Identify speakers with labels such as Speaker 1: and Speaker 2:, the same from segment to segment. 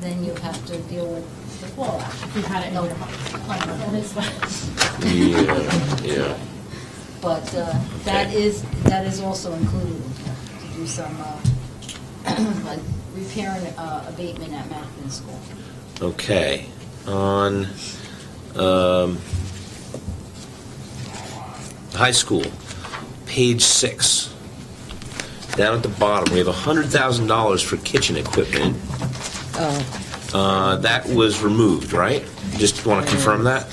Speaker 1: then you have to deal with the fall action.
Speaker 2: You had it in
Speaker 1: No,
Speaker 2: your-
Speaker 1: on your list, but-
Speaker 3: Yeah, yeah.
Speaker 1: But uh, that
Speaker 3: Okay.
Speaker 1: is, that is also included, in here, to do some, uh, like repairing uh, abatement at Mackin School.
Speaker 3: Okay, on, um, high school, page six. Down at the bottom, we have hundred thousand dollars for kitchen equipment.
Speaker 4: Oh.
Speaker 3: Uh, that was removed, right? Just want to confirm that?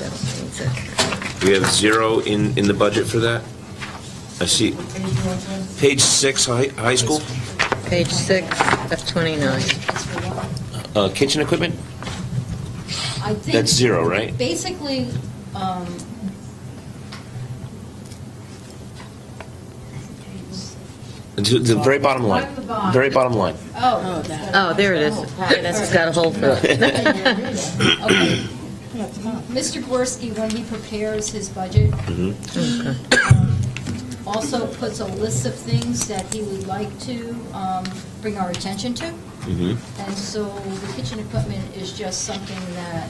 Speaker 3: We have zero in, in the budget for that? I see. Page six, high, high school,
Speaker 4: Page six of 29.
Speaker 1: That's for one.
Speaker 3: uh, kitchen equipment?
Speaker 1: I think-
Speaker 3: That's zero, right?
Speaker 1: Basically, um,
Speaker 3: The, the very bottom line,
Speaker 2: Bottom, bottom.
Speaker 3: very bottom line.
Speaker 1: oh.
Speaker 4: Oh, there it is. Yeah, That's it's got a hole for it.
Speaker 1: Okay. Mr. Gorski, when he prepares his budget, um, also puts a list of things that he would like to um, bring our attention to.
Speaker 3: Mhm.
Speaker 1: And so the kitchen equipment is just something that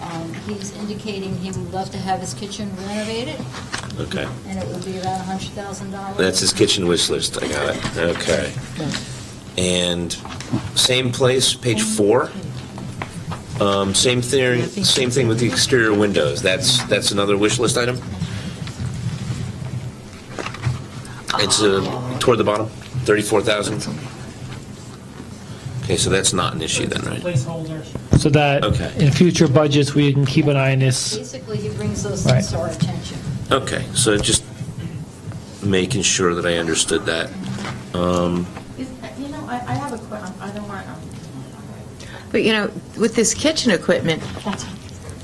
Speaker 1: um, he's indicating he would love to have his kitchen renovated,
Speaker 3: Okay.
Speaker 1: and it would be about $100,000.
Speaker 3: That's his kitchen wish list, I got it, okay. And same place, page four. Um, Same thing, same thing with the exterior windows, that's, that's another wish list item? It's uh, toward the bottom, 34,000? Okay, so that's not an issue then, right?
Speaker 2: Placeholder.
Speaker 5: so that
Speaker 3: Okay.
Speaker 5: in future budgets, we can keep an eye on this.
Speaker 1: Basically, he brings those things to our attention.
Speaker 3: Okay, so just making sure that I understood that. Um,
Speaker 6: Is, you know, I, I have a que, I don't want, um,
Speaker 4: But, you know, with this kitchen equipment,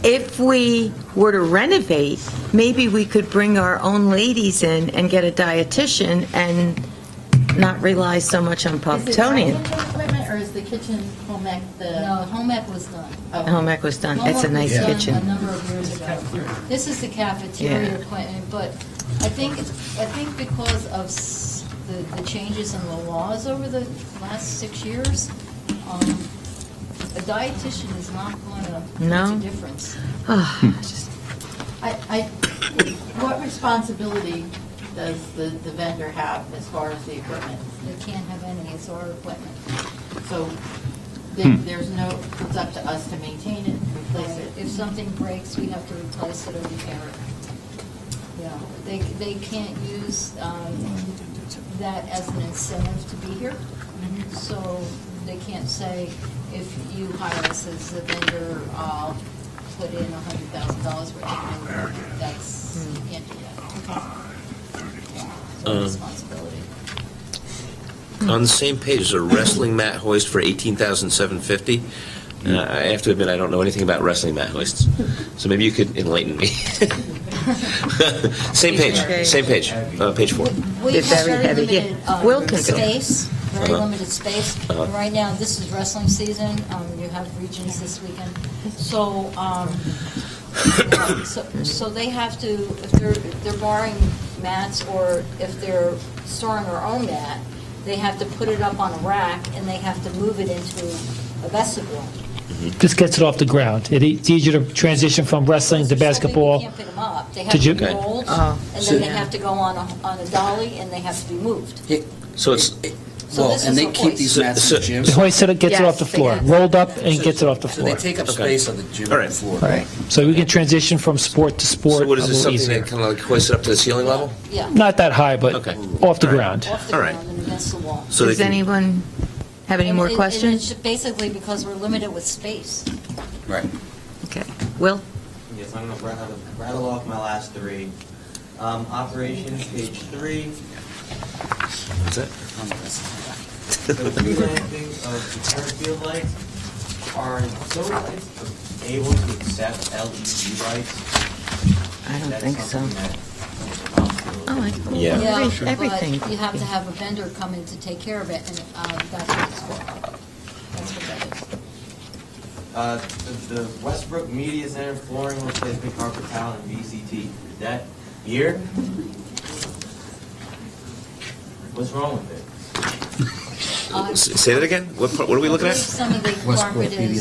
Speaker 4: if we were to renovate, maybe we could bring our own ladies in and get a dietitian and not rely so much on
Speaker 6: is it dining
Speaker 4: Pocatonian.
Speaker 6: equipment or is the kitchen home ec the?
Speaker 1: No, home ec was done.
Speaker 4: Home ec was done. It's a
Speaker 1: Home ec was
Speaker 4: nice
Speaker 1: done
Speaker 4: kitchen.
Speaker 1: A number of years ago. This is the
Speaker 4: Yeah.
Speaker 1: cafeteria plan, but I think, I think because of s- the, the changes in the laws over the last six years, um, a dietitian is not going to
Speaker 4: No.
Speaker 1: make a difference.
Speaker 3: Hmm.
Speaker 4: Ah,
Speaker 6: I, I, what responsibility does the, the vendor have as far as the equipment?
Speaker 1: They can't have any, it's our equipment.
Speaker 6: So there- there's no, it's up to us to maintain it, replace it.
Speaker 1: If something breaks, we have to replace it or repair it. Yeah, they, they can't use um, that as an incentive to be here. So they can't say, if you hire us as a vendor, I'll put in hundred thousand dollars worth of labor. That's, you can't do that. So responsibility.
Speaker 3: On the same page, there's a wrestling mat hoist for eighteen thousand seven fifty. Uh, I have to admit, I don't know anything about wrestling mat hoists, so maybe you could enlighten me. same page, same page, uh, page four.
Speaker 1: We
Speaker 4: They're
Speaker 1: have
Speaker 4: very
Speaker 1: very
Speaker 4: heavy, yeah.
Speaker 1: limited uh,
Speaker 4: Wilkins.
Speaker 1: space, very
Speaker 3: Uh-huh.
Speaker 1: limited space.
Speaker 3: Uh-huh.
Speaker 1: Right now, this is wrestling season, Um, you have regions this weekend. So, um, uh, so so they have to, if they're, if they're borrowing mats or if they're storing their own mat, they have to put it up on a rack and they have to move it into a vestibule.
Speaker 5: This gets it off the ground. It- e-, It's easier to transition from wrestling to
Speaker 1: Because they're so big, you
Speaker 5: basketball.
Speaker 1: can't pick 'em up. They
Speaker 5: to
Speaker 1: have to
Speaker 5: ju-
Speaker 1: be rolled
Speaker 4: Oh.
Speaker 1: and then they have to go on a, on a dolly and they have to be moved.
Speaker 3: So it's,
Speaker 1: So
Speaker 7: Well,
Speaker 1: this
Speaker 7: and
Speaker 1: is
Speaker 7: they
Speaker 1: the
Speaker 7: keep
Speaker 1: hoist.
Speaker 7: these mats in the gym,
Speaker 5: The
Speaker 7: so
Speaker 5: hoist set it- gets it
Speaker 4: Yes,
Speaker 5: off the
Speaker 4: they
Speaker 5: floor,
Speaker 4: have-
Speaker 5: rolled up and gets it off the
Speaker 7: they
Speaker 5: floor.
Speaker 7: take up
Speaker 3: Okay.
Speaker 7: space on the gym
Speaker 3: All right.
Speaker 7: floor.
Speaker 5: So we can transition from sport to sport
Speaker 3: so
Speaker 5: a
Speaker 3: what is this,
Speaker 5: little
Speaker 3: something
Speaker 5: easier.
Speaker 3: that kind of like hoists it up to the ceiling level?
Speaker 1: Yeah.
Speaker 5: Not that high, but
Speaker 3: Okay.
Speaker 5: off the ground.
Speaker 1: off the
Speaker 3: All right.
Speaker 1: ground and against the wall.
Speaker 3: So they
Speaker 4: Does
Speaker 3: can-
Speaker 4: anyone have any
Speaker 1: And
Speaker 4: more
Speaker 1: it- and
Speaker 4: questions?
Speaker 1: it's Basically because we're limited with space.
Speaker 7: Right.
Speaker 4: Okay. Will?
Speaker 8: Yes, I'm gonna rattle, rattle off my last three. Um, operations, page three,
Speaker 3: That's it?
Speaker 8: the relancing of the turf field lights. Are those lights able to accept LED lights?
Speaker 4: I don't think so. Oh,
Speaker 8: so.
Speaker 4: I,
Speaker 3: Yeah.
Speaker 4: every- everything.
Speaker 1: But you have to have a vendor come in to take care of it, and uh, that's what it's for. That's what that is.
Speaker 8: Uh, the, the Westbrook Media Center flooring replacement carpet tile and VCT, is that here? What's wrong with it?
Speaker 1: Uh,
Speaker 3: S- Say that again? What, part- what are we looking
Speaker 1: I believe
Speaker 3: at?
Speaker 1: Some of the
Speaker 7: Westbrook
Speaker 1: carpet
Speaker 7: Media
Speaker 1: is